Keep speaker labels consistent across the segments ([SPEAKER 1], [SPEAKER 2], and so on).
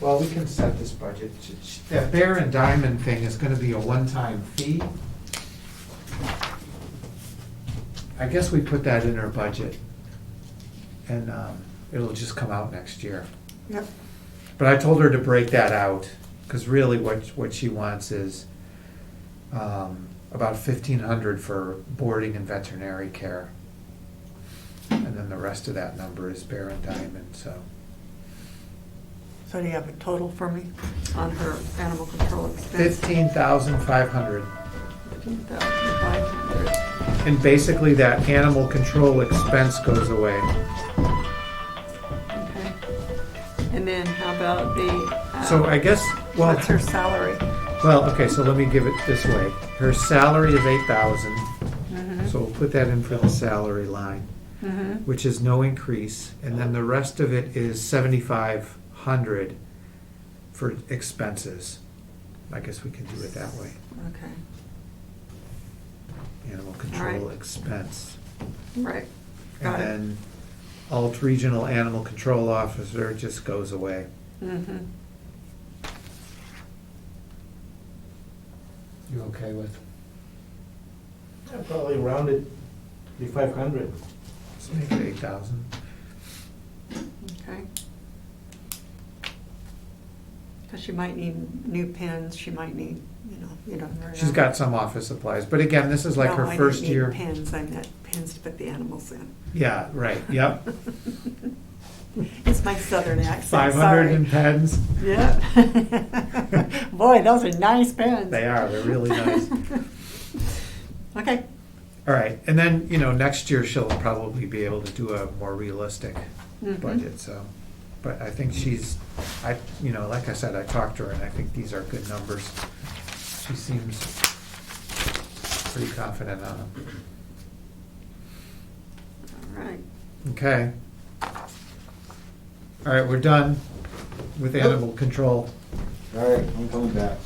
[SPEAKER 1] Well, we can set this budget. That Bear and Diamond thing is gonna be a one-time fee. I guess we put that in our budget. And, um, it'll just come out next year.
[SPEAKER 2] Yep.
[SPEAKER 1] But I told her to break that out, cause really what, what she wants is, um, about fifteen hundred for boarding and veterinary care. And then the rest of that number is Bear and Diamond, so.
[SPEAKER 2] So do you have a total for me on her animal control expense?
[SPEAKER 1] Fifteen thousand five hundred.
[SPEAKER 2] Fifteen thousand five hundred.
[SPEAKER 1] And basically, that animal control expense goes away.
[SPEAKER 2] Okay. And then how about the? uh,
[SPEAKER 1] So I guess, well,
[SPEAKER 2] What's her salary?
[SPEAKER 1] well, okay, so let me give it this way. Her salary is eight thousand,
[SPEAKER 2] Mhm.
[SPEAKER 1] so we'll put that in for the salary line,
[SPEAKER 2] Mhm.
[SPEAKER 1] which is no increase. And then the rest of it is seventy-five hundred for expenses. I guess we can do it that way,
[SPEAKER 2] Okay,
[SPEAKER 1] animal control
[SPEAKER 2] Alright.
[SPEAKER 1] expense.
[SPEAKER 2] right. Got
[SPEAKER 1] And
[SPEAKER 2] it.
[SPEAKER 1] then alt regional animal control officer just goes away.
[SPEAKER 2] Mhm.
[SPEAKER 1] You okay with?
[SPEAKER 3] I Probably rounded the five hundred.
[SPEAKER 1] Let's make it eight thousand.
[SPEAKER 2] Okay. Because she might need new pens, she might need, you know, you don't know.
[SPEAKER 1] She's got some office supplies, but again, this is like
[SPEAKER 2] No, I
[SPEAKER 1] her
[SPEAKER 2] didn't
[SPEAKER 1] first
[SPEAKER 2] mean
[SPEAKER 1] year.
[SPEAKER 2] Pens, I meant pens to put the animals in.
[SPEAKER 1] Yeah, right, yep.
[SPEAKER 2] It's my southern accent, sorry.
[SPEAKER 1] Five hundred and pens.
[SPEAKER 2] Yeah. Boy, those are nice pens.
[SPEAKER 1] They are, they're really nice.
[SPEAKER 2] Okay,
[SPEAKER 1] All right, and then, you know, next year she'll probably be able to do a more realistic
[SPEAKER 2] Mhm.
[SPEAKER 1] budget, so. But I think she's, I, you know, like I said, I talked to her and I think these are good numbers. She seems pretty confident on them.
[SPEAKER 2] all right.
[SPEAKER 1] Okay. All right, we're done with animal control.
[SPEAKER 3] All right, I'm coming back.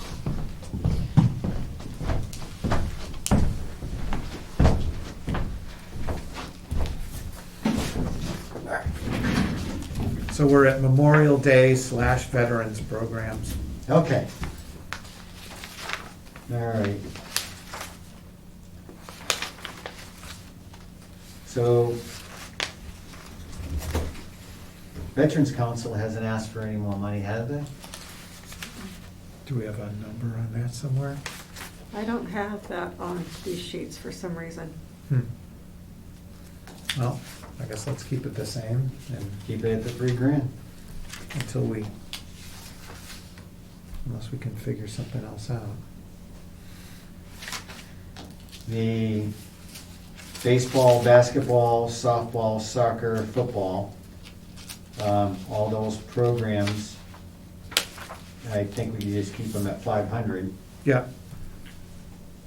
[SPEAKER 1] So we're at Memorial Day slash Veterans Programs.
[SPEAKER 3] Okay. All right. So Veterans Council hasn't asked for any more money, have they?
[SPEAKER 1] Do we have a number on that somewhere?
[SPEAKER 2] I don't have that on these sheets for some reason.
[SPEAKER 1] Hmm. Well, I guess let's keep it the same and
[SPEAKER 3] Keep it at the three grand.
[SPEAKER 1] until we, unless we can figure something else out.
[SPEAKER 3] the baseball, basketball, softball, soccer, football, um, all those programs, I think we can just keep them at five hundred.
[SPEAKER 1] Yeah,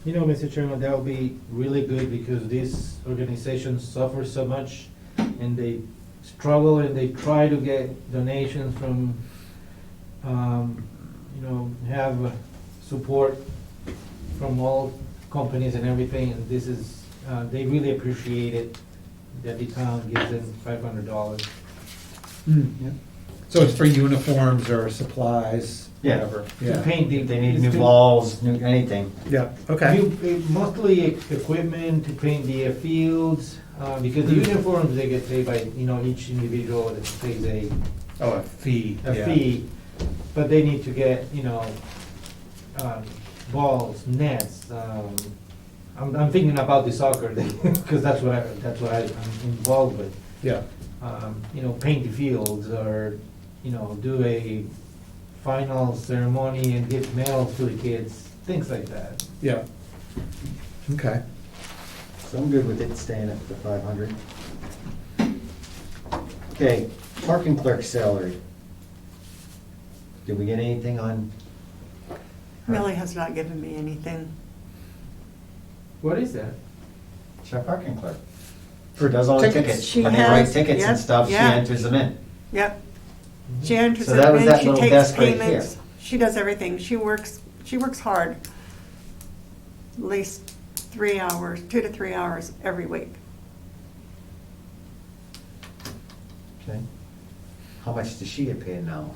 [SPEAKER 4] You know, Mr. Chairman, that would be really good because these organizations suffer so much and they struggle and they try to get donations from, um, you know, have uh, support from all companies and everything. And this is, uh, they really appreciate it that the town gives them five hundred dollars.
[SPEAKER 1] Hmm. so it's for uniforms or supplies,
[SPEAKER 3] Yeah.
[SPEAKER 1] whatever.
[SPEAKER 4] To paint the.
[SPEAKER 3] They need
[SPEAKER 4] it's
[SPEAKER 3] new
[SPEAKER 4] to-
[SPEAKER 3] balls, new, anything.
[SPEAKER 1] Yeah, okay.
[SPEAKER 4] You- eh, Mostly equipment to paint the uh, fields, uh, because the uniforms, they get paid by, you know, each individual that pays a,
[SPEAKER 1] Oh, a fee.
[SPEAKER 4] a
[SPEAKER 1] yeah.
[SPEAKER 4] fee. But they need to get, you know, um, balls, nets, um, I'm, I'm thinking about the soccer, because that's what I, that's what I- I'm involved with.
[SPEAKER 1] Yeah,
[SPEAKER 4] Um, You know, paint the fields or, you know, do a final ceremony and give medals to the kids, things like that.
[SPEAKER 1] yeah. Okay.
[SPEAKER 3] So I'm good with it staying at the five hundred. Okay, parking clerk salary. Did we get anything on?
[SPEAKER 2] Millie has not given me anything.
[SPEAKER 4] What is that?
[SPEAKER 3] She's our parking clerk. She does all the
[SPEAKER 1] Tickets.
[SPEAKER 3] tickets.
[SPEAKER 2] She
[SPEAKER 3] When they write
[SPEAKER 2] has-
[SPEAKER 3] tickets
[SPEAKER 2] yeah,
[SPEAKER 3] and stuff, she
[SPEAKER 2] yeah.
[SPEAKER 3] enters them in.
[SPEAKER 2] Yep.
[SPEAKER 1] Mm-hmm.
[SPEAKER 2] She enters
[SPEAKER 3] So that
[SPEAKER 2] it
[SPEAKER 3] was
[SPEAKER 2] in,
[SPEAKER 3] that
[SPEAKER 2] she
[SPEAKER 3] little
[SPEAKER 2] takes
[SPEAKER 3] desk right here.
[SPEAKER 2] payments, she does everything, she works, she works hard. At least three hours, two to three hours every week.
[SPEAKER 3] Okay. How much does she get paid now?